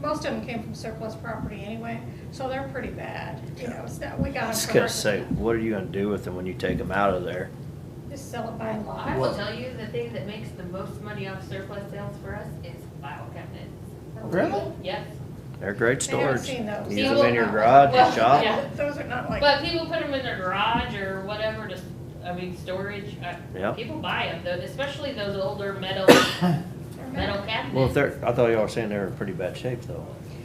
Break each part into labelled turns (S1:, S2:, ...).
S1: most of them came from surplus property anyway, so they're pretty bad, you know, it's not, we got
S2: I
S1: them.
S2: was
S1: for
S2: gonna
S1: hardly
S2: say,
S1: nothing.
S2: what are you gonna do with them when you take them out of there?
S1: Just sell it by
S3: I
S1: lot.
S3: will
S2: Well-
S3: tell you, the thing that makes the most money off surplus sales for us is file cabinets.
S2: Really?
S3: Yes.
S2: They're great
S1: They haven't
S2: storage.
S1: seen those.
S2: Use
S3: People-
S2: them in your garage,
S3: Well,
S2: your shop.
S3: yeah.
S1: Those are not like.
S3: But people put them in their garage or whatever to, I mean, storage, uh,
S2: Yeah.
S3: people buy them, though, especially those older metal,
S1: they're
S3: metal
S1: not-
S3: cabinets.
S2: Well, if they're, I thought y'all were saying they were in pretty bad shape though.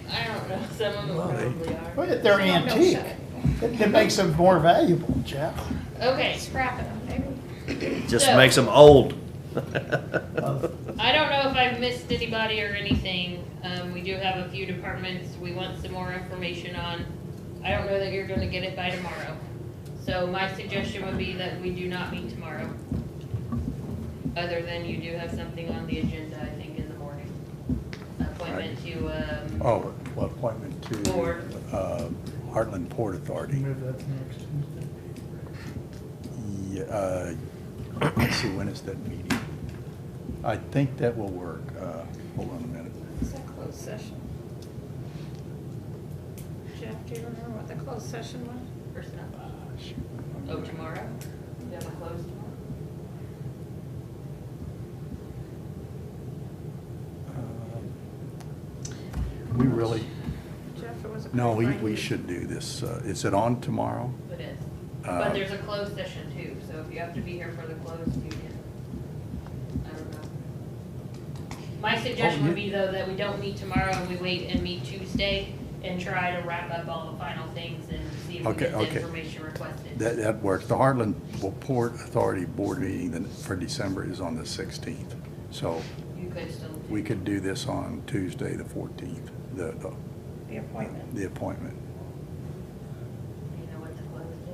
S3: I don't know, some of them
S4: Well, they-
S3: probably are.
S5: Well, if they're
S1: they're not milk
S5: antique,
S1: shed.
S5: it it makes them more valuable, Jeff.
S3: Okay,
S1: Scrapping them, maybe.
S2: Just
S3: So-
S2: makes them old.
S3: I don't know if I've missed anybody or anything, um, we do have a few departments we want some more information on. I don't know that you're gonna get it by tomorrow, so my suggestion would be that we do not meet tomorrow. Other than you do have something on the agenda, I think, in the morning. Appointment to, um,
S4: Oh, well, appointment to
S3: Board.
S4: uh, Heartland Port Authority.
S6: Move that to next Tuesday.
S4: Yeah, uh, Let's see, when is that meeting? I think that will work. Uh, Hold on a minute.
S1: It's a closed session. Jeff, do you remember what the closed session was?
S3: personnel. Oh, tomorrow? You have a close tomorrow?
S4: Uh, We really,
S1: Jeff, it was a.
S4: no, we
S1: pretty
S4: we
S1: fine-
S4: should do this. Uh, Is it on tomorrow?
S3: It is.
S4: Uh,
S3: But there's a closed session too, so if you have to be here for the closed, you can. I don't know. My
S4: Oh,
S3: suggestion would be though that we don't meet tomorrow and we wait and meet Tuesday and try to wrap up all the final things and see if we
S4: Okay,
S3: get the
S4: okay.
S3: information requested.
S4: That, that works. The Heartland Port Authority Board meeting then for December is on the 16th. So
S3: You could still. do-
S4: we could do this on Tuesday, the 14th, the, the-
S1: The appointment.
S4: the appointment.
S3: You know what the closed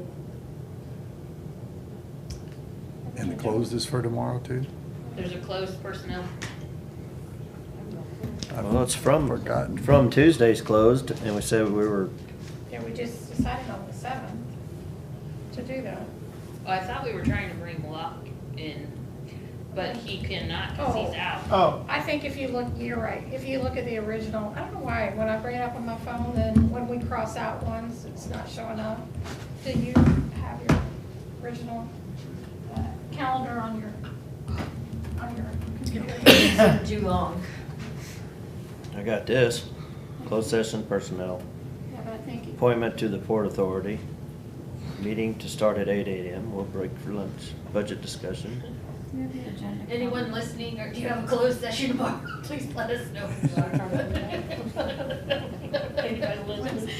S3: is?
S4: And the close is for tomorrow, too?
S3: There's a closed personnel.
S4: I've
S2: Well, it's from,
S4: Forgotten.
S2: from Tuesday's closed and we said we were,
S1: Yeah, we just decided on the seventh to do that.
S3: Well, I thought we were trying to bring Locke in, but he cannot because he's
S1: Oh.
S3: out.
S5: Oh,
S1: I think if you look, you're right, if you look at the original, I don't know why, when I bring it up on my phone, then when we cross out ones, it's not showing up. Do you have your original uh, calendar on your, on your computer?
S3: Too long.
S2: I got this. Closed session personnel,
S1: Yeah, but I think, it-
S2: appointment to the Port Authority, meeting to start at eight AM, we'll break for lunch, budget discussion.
S1: you have the agenda.
S3: Anyone listening, or do you have a closed session tomorrow? Please let us know. Anybody listening?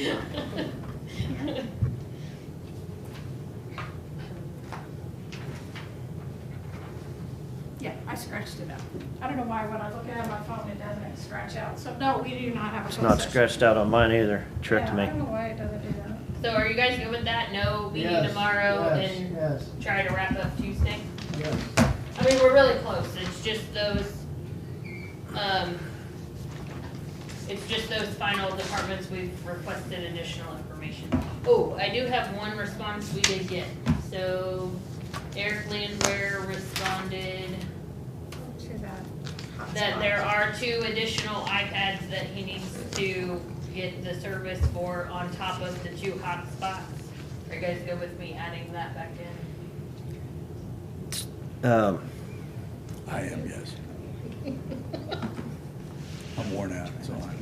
S1: Yeah, I scratched it out. I don't know why when I look at it on my phone, it doesn't scratch out, so no, we do not have a.
S2: It's
S1: closed
S2: not
S1: session.
S2: scratched out on mine either, tricked
S1: Yeah,
S2: me.
S1: I don't know why it doesn't do that.
S3: So are you guys good with that? No meeting
S5: Yes,
S3: tomorrow
S5: yes,
S3: and
S5: Yes,
S3: try to wrap up Tuesday?
S5: yes.
S3: I mean, we're really close, it's just those, um, it's just those final departments we've requested additional information. Oh, I do have one response we did get, so Eric Landwehr responded
S1: To that.
S3: that there are two additional iPads that he needs to get the service for on top of the two hotspots. Are you guys good with me adding that back in?
S2: Um,
S4: I am, yes. I'm worn out, so I'm.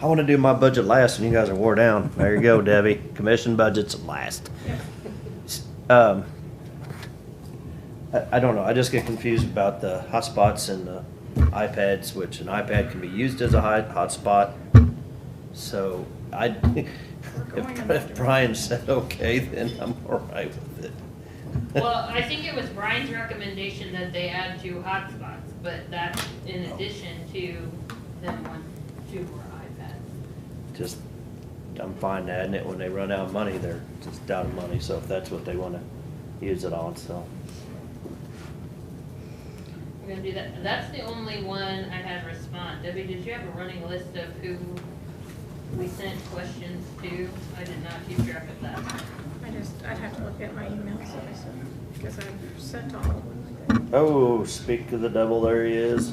S2: I wanna do my budget last and you guys are wore down. There you go, Debbie. Commission budget's last. Um, I, I don't know, I just get confused about the hotspots and the iPads, which an iPad can be used as a hot, hotspot. So I,
S1: going in that
S2: if Brian said okay, then I'm all right with it.
S3: Well, I think it was Brian's recommendation that they add two hotspots, but that's in addition to them want two more iPads.
S2: Just, I'm fine adding it when they run out of money, they're just out of money, so if that's what they wanna use it on, so.
S3: We're gonna do that, that's the only one I had respond. Debbie, did you have a running list of who we sent questions to? I did not keep track of that.
S1: I just, I'd have to look at my emails that I sent, because I sent all of them.
S2: Oh, speak of the devil, there he is.